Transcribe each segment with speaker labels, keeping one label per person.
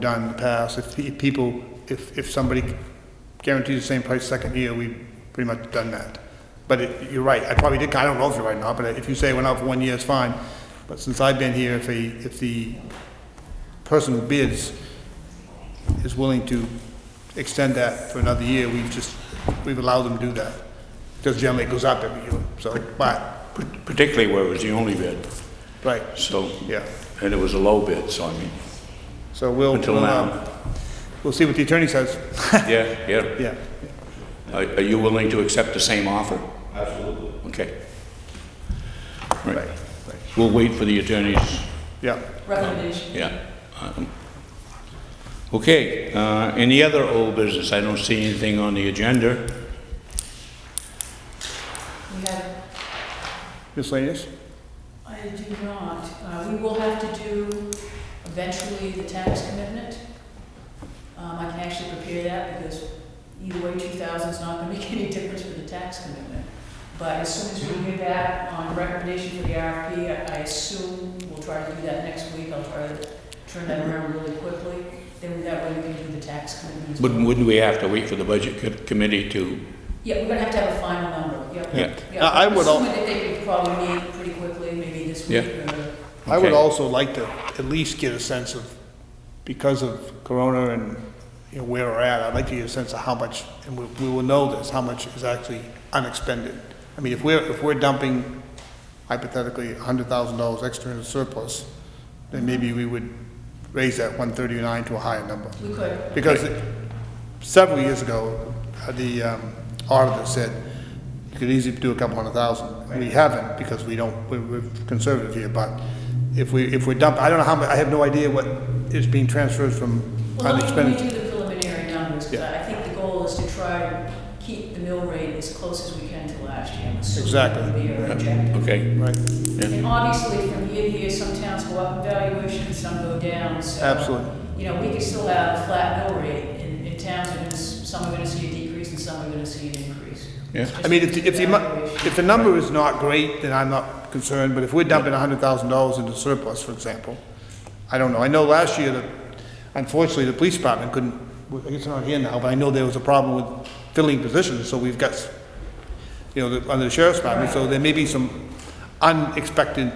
Speaker 1: done in the past. If pe- people, if, if somebody guarantees the same price second year, we've pretty much done that. But it- you're right, I probably did, I don't know if you're right or not, but if you say it went out for one year, it's fine. But since I've been here, if a, if the person who bids is willing to extend that for another year, we've just, we've allowed them to do that. Because generally it goes up every year, so, but,
Speaker 2: particularly where it was the only bid,
Speaker 1: right,
Speaker 2: so.
Speaker 1: yeah.
Speaker 2: And it was a low bid, so I mean,
Speaker 1: So we'll.
Speaker 2: Until
Speaker 1: we'll,
Speaker 2: now.
Speaker 1: um, We'll see what the attorney says.
Speaker 2: yeah, yeah.
Speaker 1: Yeah.
Speaker 2: Are are you willing to accept the same offer? Absolutely. Okay. Right. We'll wait for the attorney's,
Speaker 1: Yeah.
Speaker 3: Recommendation.
Speaker 2: yeah. Um, Okay, uh, any other old business? I don't see anything on the agenda.
Speaker 3: We have,
Speaker 1: Miscellaneous?
Speaker 3: I do not, uh, we will have to do eventually the tax commitment. Um, I can actually prepare that because either way, two thousand's not gonna make any difference for the tax commitment. But as soon as we hear that on recommendation for the RFP, I- I assume we'll try to do that next week. I'll try to turn that around really quickly. Then that way we can do the tax commitment. as well.
Speaker 2: Wouldn't, wouldn't we have to wait for the budget co- committee to,
Speaker 3: Yeah, we're gonna have to have a final number, yep.
Speaker 2: Yeah.
Speaker 1: I- I would al-
Speaker 3: Assuming that they could probably meet pretty quickly, maybe this
Speaker 2: Yeah.
Speaker 3: week or.
Speaker 1: I would
Speaker 2: Okay.
Speaker 1: also like to at least get a sense of, because of Corona and, you know, where we're at, I'd like to get a sense of how much, and we, we will know this, how much is actually unexpended. I mean, if we're, if we're dumping hypothetically hundred thousand dollars extra in the surplus, then maybe we would raise that one thirty-nine to a higher number.
Speaker 3: We could.
Speaker 1: Because several years ago, uh, the um, auditor said you could easily do a couple hundred thousand. We haven't because we don't, we're- we're conservative here, but if we, if we dump, I don't know how, mu- I have no idea what is being transferred from
Speaker 3: Well, let me- let me
Speaker 1: unexpended.
Speaker 3: do the preliminary numbers, because I think the goal is to try to keep the mill rate as close as we can to last year. I'm assuming that would
Speaker 1: Exactly.
Speaker 3: be our objective.
Speaker 2: uh, okay?
Speaker 1: Right,
Speaker 3: And obviously, from year to year, some towns go up in valuation, some go down, so.
Speaker 1: Absolutely.
Speaker 3: You know, we could still have a flat mill rate, and, and towns are gonna, s- some are gonna see a decrease and some are gonna see an increase.
Speaker 2: Yeah.
Speaker 3: It's
Speaker 1: I mean, if,
Speaker 3: just
Speaker 1: the- if the, amo-
Speaker 3: valuation.
Speaker 1: if the number is not great, then I'm not concerned, but if we're dumping hundred thousand dollars into surplus, for example, I don't know, I know last year that unfortunately the police department couldn't, I guess they're not here now, but I know there was a problem with filling positions, so we've got, s- you know, the- under the sheriff's department, so there may be some unexpected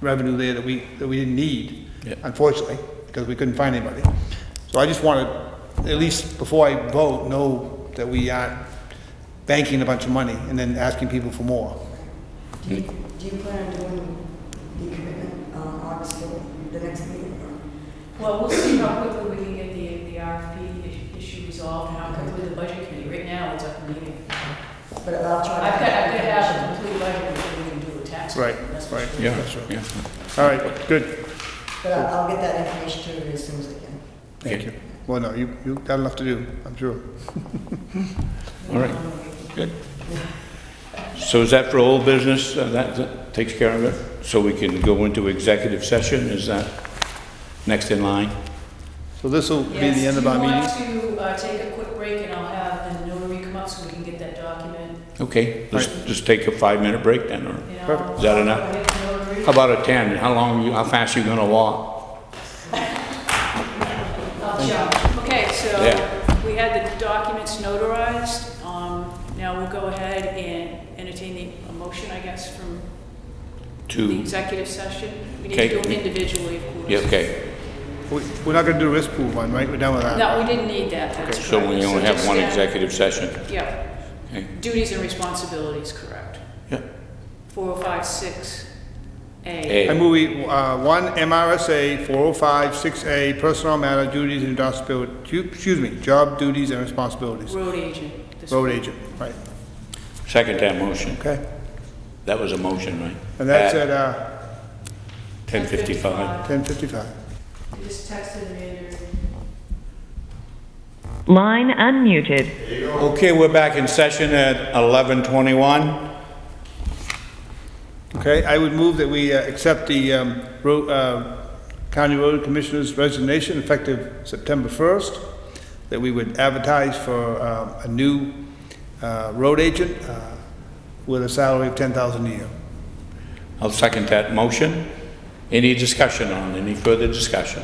Speaker 1: revenue there that we, that we didn't need,
Speaker 2: Yeah.
Speaker 1: unfortunately, because we couldn't find anybody. So I just want to, at least before I vote, know that we aren't banking a bunch of money and then asking people for more.
Speaker 4: Do you, do you plan on doing the commitment on August fourth, the next meeting? or-
Speaker 3: Well, we'll see how quickly we can get the, the RFP i- issue resolved, and how quickly the budget committee, right now, it's up in the meeting.
Speaker 4: But I'll try to.
Speaker 3: I've got, I've got uh, to have a complete budget before we can do a tax.
Speaker 1: Right,
Speaker 3: plan, that's for
Speaker 1: right.
Speaker 3: sure.
Speaker 2: Yeah,
Speaker 1: That's right.
Speaker 2: yeah.
Speaker 1: All right, good,
Speaker 4: But I'll I'll get that information to you as soon as I can.
Speaker 1: thank you. Well, no, you, you got enough to do, I'm sure.
Speaker 2: All right, good. So is that for old business? Uh, That that takes care of it? So we can go into executive session? Is that next in line?
Speaker 1: So this will be the end of our meeting.
Speaker 3: Yes, do you want to uh, take a quick break, and I'll have the notary come up so we can get that document,
Speaker 2: Okay, let's just take a five-minute break then, or
Speaker 3: you
Speaker 1: Perfect.
Speaker 3: know?
Speaker 2: Is that enough? how about a 10? How long, you? how fast you gonna walk?
Speaker 3: I'll jump. Okay, so
Speaker 2: Yeah.
Speaker 3: we had the documents notarized. Um, Now we'll go ahead and entertain the a motion, I guess, from the
Speaker 2: Two,
Speaker 3: executive session. We need to do
Speaker 2: Okay.
Speaker 3: them individually, of course.
Speaker 2: yeah, okay.
Speaker 1: We- We're not gonna do risk pool one, right? We're done with that.
Speaker 3: No, we didn't need that, that's correct.
Speaker 2: So we only have
Speaker 3: just
Speaker 2: one
Speaker 3: add-
Speaker 2: executive session?
Speaker 3: Yeah,
Speaker 2: Okay.
Speaker 3: duties and responsibilities, correct.
Speaker 2: Yeah.
Speaker 3: 4056A.
Speaker 2: A.
Speaker 1: I move we, uh, one MRSA four oh five six A, personal matter duties and responsibilities, excuse me, job duties and responsibilities.
Speaker 3: Road agent. this-
Speaker 1: Road agent, right,
Speaker 2: Second that motion.
Speaker 1: okay.
Speaker 2: That was a motion, right?
Speaker 1: And that's
Speaker 2: At
Speaker 1: at, uh,
Speaker 2: 10:55.
Speaker 1: ten fifty-five.
Speaker 3: You Just texted Amanda.
Speaker 5: Line unmuted.
Speaker 2: Okay, we're back in session at 11:21.
Speaker 1: Okay, I would move that we uh, accept the um, ro- uh, County Road Commissioner's resignation effective September 1st, that we would advertise for um, a new uh, road agent uh, with a salary of $10,000 a year.
Speaker 2: I'll second that motion. Any discussion on, any further discussion?